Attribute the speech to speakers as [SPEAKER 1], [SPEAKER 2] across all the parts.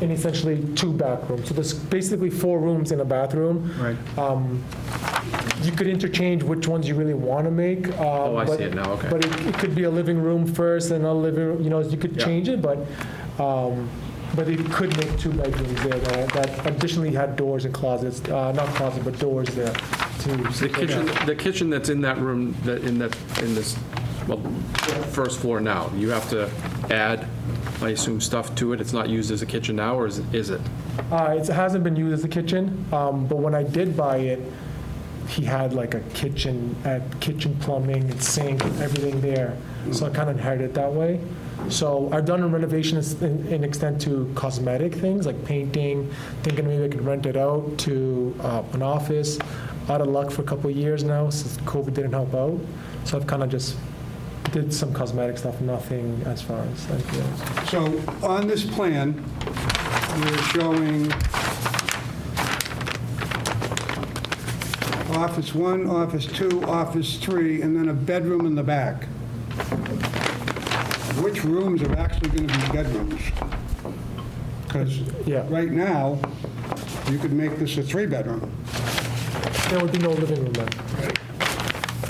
[SPEAKER 1] and essentially two back rooms. So there's basically four rooms in a bathroom.
[SPEAKER 2] Right.
[SPEAKER 1] Um, You could interchange which ones you really want to make. Oh,
[SPEAKER 2] I see it now, okay.
[SPEAKER 1] But it- it could be a living room first and a living, room. you know, you could
[SPEAKER 2] Yeah.
[SPEAKER 1] change it, but, um, but it could make two bedrooms there that- that additionally had doors and closets, uh, not closets, but doors there too.
[SPEAKER 2] The kitchen, the kitchen that's in that room, that, in that, in this, well, first floor now, you have to add, I assume, stuff to it? It's not used as a kitchen now, or is it- is it?
[SPEAKER 1] Uh, It hasn't been used as a kitchen, um, but when I did buy it, he had like a kitchen, uh, kitchen plumbing and sink, everything there. So I kind of inherited it that way. So I've done renovations in in extent to cosmetic things, like painting, thinking maybe I could rent it out to uh, an office. Out of luck for a couple of years now, since COVID didn't help out. So I've kind of just did some cosmetic stuff, nothing as far as like, you know,
[SPEAKER 3] So on this plan, we're showing office one, office two, office three, and then a bedroom in the back. Which rooms are actually going to be bedrooms? Because
[SPEAKER 1] Yeah.
[SPEAKER 3] right now, you could make this a three-bedroom.
[SPEAKER 1] There would be no living room then.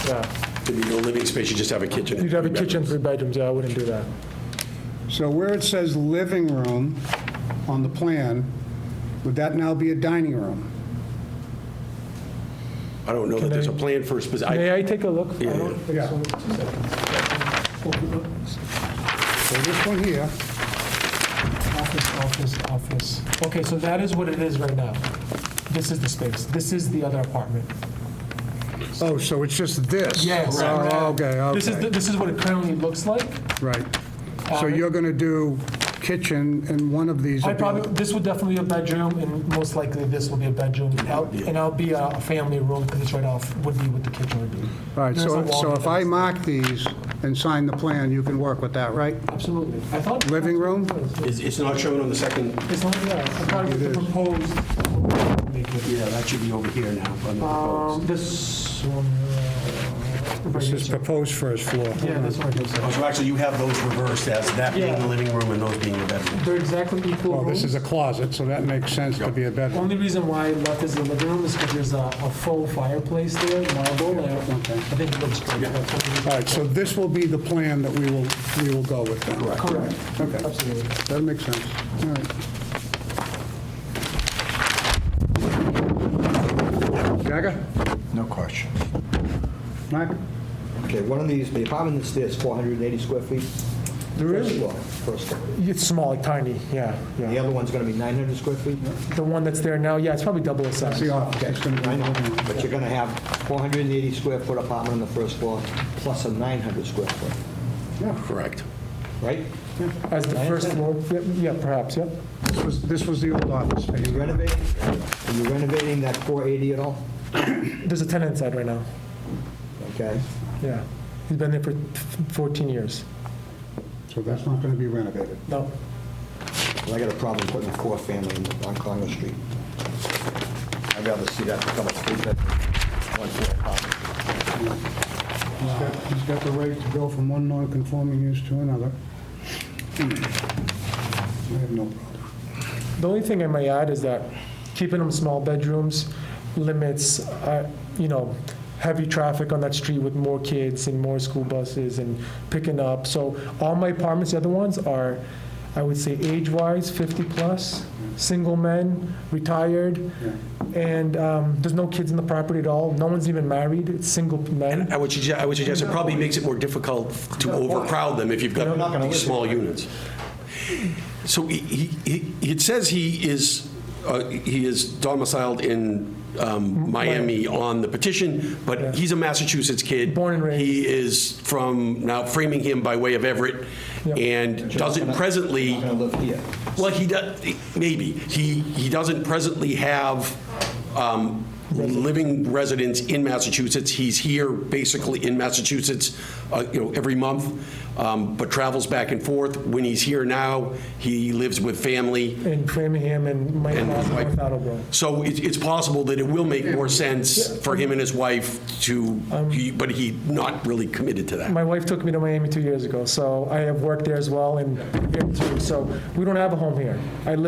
[SPEAKER 1] Yeah.
[SPEAKER 4] There'd be no living space, you just have a kitchen. and
[SPEAKER 1] You'd have a
[SPEAKER 4] three
[SPEAKER 1] kitchen,
[SPEAKER 4] bedrooms.
[SPEAKER 1] three bedrooms, yeah, I wouldn't do that.
[SPEAKER 3] So where it says living room on the plan, would that now be a dining room?
[SPEAKER 4] I don't know that there's a
[SPEAKER 1] Can I-
[SPEAKER 4] plan for a specific, I-
[SPEAKER 1] May I take a look? I don't think
[SPEAKER 3] Yeah.
[SPEAKER 1] so.
[SPEAKER 3] So this one here,
[SPEAKER 1] Office, office, office. Okay, so that is what it is right now. This is the space, this is the other apartment.
[SPEAKER 3] oh, so it's just this?
[SPEAKER 1] Yes.
[SPEAKER 3] Oh, okay, okay.
[SPEAKER 1] This is, the- this is what it currently looks like.
[SPEAKER 3] Right. So you're going to do kitchen in one of these?
[SPEAKER 1] I
[SPEAKER 3] would be-
[SPEAKER 1] probably, this would definitely be a bedroom, and most likely this will be a bedroom. Out- And I'll be a a family room, because it's right off, would be what the kitchen would be.
[SPEAKER 3] All right,
[SPEAKER 1] There's a
[SPEAKER 3] so
[SPEAKER 1] wall
[SPEAKER 3] so if I
[SPEAKER 1] downstairs.
[SPEAKER 3] mark these and sign the plan, you can work with that, right?
[SPEAKER 1] Absolutely. I thought.
[SPEAKER 3] Living room?
[SPEAKER 4] it's it's not shown on the second,
[SPEAKER 1] It's not, yeah, I thought it was the proposed. Make it.
[SPEAKER 4] yeah, that should be over here now. on the
[SPEAKER 1] Um,
[SPEAKER 4] proposed.
[SPEAKER 1] This one. uh, right
[SPEAKER 3] This is
[SPEAKER 1] here.
[SPEAKER 3] proposed first floor.
[SPEAKER 1] Yeah, this one. uh,
[SPEAKER 4] Oh, So actually, you have those reversed as that being
[SPEAKER 1] Yeah.
[SPEAKER 4] the living room and those being the bedroom.
[SPEAKER 1] They're exactly equal
[SPEAKER 3] Well, this
[SPEAKER 1] rooms.
[SPEAKER 3] is a closet, so that makes sense to be a bedroom.
[SPEAKER 1] Only reason why I left is the living room is because there's a, a full fireplace there, marble. I I think it looks great.
[SPEAKER 3] All right, so this will be the plan that we will, we will go with then. Correct.
[SPEAKER 1] Correct.
[SPEAKER 3] Okay.
[SPEAKER 1] Absolutely.
[SPEAKER 3] That makes sense. All right. Jagger?
[SPEAKER 5] No question.
[SPEAKER 3] Mark?
[SPEAKER 5] Okay, one of these, the apartment that's there is 480 square feet.
[SPEAKER 1] There
[SPEAKER 5] First
[SPEAKER 1] is-
[SPEAKER 5] floor, first floor.
[SPEAKER 1] It's small, tiny, yeah,
[SPEAKER 5] The
[SPEAKER 1] yeah.
[SPEAKER 5] other one's going to be 900 square feet?
[SPEAKER 1] The one that's there now, yeah, it's probably double the size.
[SPEAKER 3] The office is going to be...
[SPEAKER 5] I know, but you're going to have 480 square foot apartment on the first floor plus a 900 square foot,
[SPEAKER 4] Correct.
[SPEAKER 5] right?
[SPEAKER 1] As the
[SPEAKER 5] I
[SPEAKER 1] first
[SPEAKER 5] understand.
[SPEAKER 1] floor, yeah, yeah, perhaps, yeah.
[SPEAKER 3] This was- This was the old office space.
[SPEAKER 5] You renovating, are you renovating that 480 at all?
[SPEAKER 1] There's a tenant inside right now,
[SPEAKER 5] Okay,
[SPEAKER 1] yeah. He's been there for 14 years.
[SPEAKER 3] So that's not going to be renovated.
[SPEAKER 1] No,
[SPEAKER 5] well, I got a problem putting a four-family in- on Congress Street. I'd rather see that become a three-bedroom, one-floor apartment.
[SPEAKER 3] He's got- He's got the right to go from one non-conforming use to another. Hmm. I have no problem.
[SPEAKER 1] The only thing I may add is that keeping them small bedrooms limits, uh, you know, heavy traffic on that street with more kids and more school buses and picking up. So all my apartments, the other ones are, I would say, age-wise, 50-plus, single men, retired, and um, there's no kids in the property at all. No one's even married, it's single men.
[SPEAKER 4] And I would suggest, I would suggest it probably makes it more difficult to overcrowd them if you've
[SPEAKER 5] They're
[SPEAKER 4] got
[SPEAKER 5] not gonna
[SPEAKER 4] these
[SPEAKER 5] live
[SPEAKER 4] small
[SPEAKER 5] there.
[SPEAKER 4] units. So he, he, he- it says he is, uh, he is domiciled in um, Miami on the petition, but he's a Massachusetts kid.
[SPEAKER 1] Born and raised.
[SPEAKER 4] He is from, now Framingham by way of Everett,
[SPEAKER 1] Yep.
[SPEAKER 4] and doesn't presently.
[SPEAKER 5] You're not going to live here.
[SPEAKER 4] Well, he does, maybe. He, he doesn't presently have um, living residence in Massachusetts. He's here basically in Massachusetts, uh, you know, every month, um, but travels back and forth. When he's here now, he lives with family.
[SPEAKER 1] In Framingham and my
[SPEAKER 4] And
[SPEAKER 1] house in
[SPEAKER 4] like-
[SPEAKER 1] North Attleboro.
[SPEAKER 4] So it- it's possible that it will make more sense for him and his wife to,
[SPEAKER 5] Um,
[SPEAKER 4] he- but he not really committed to that.
[SPEAKER 1] My wife took me to Miami two years ago, so I have worked there as well and here too. So we don't have a home here. I live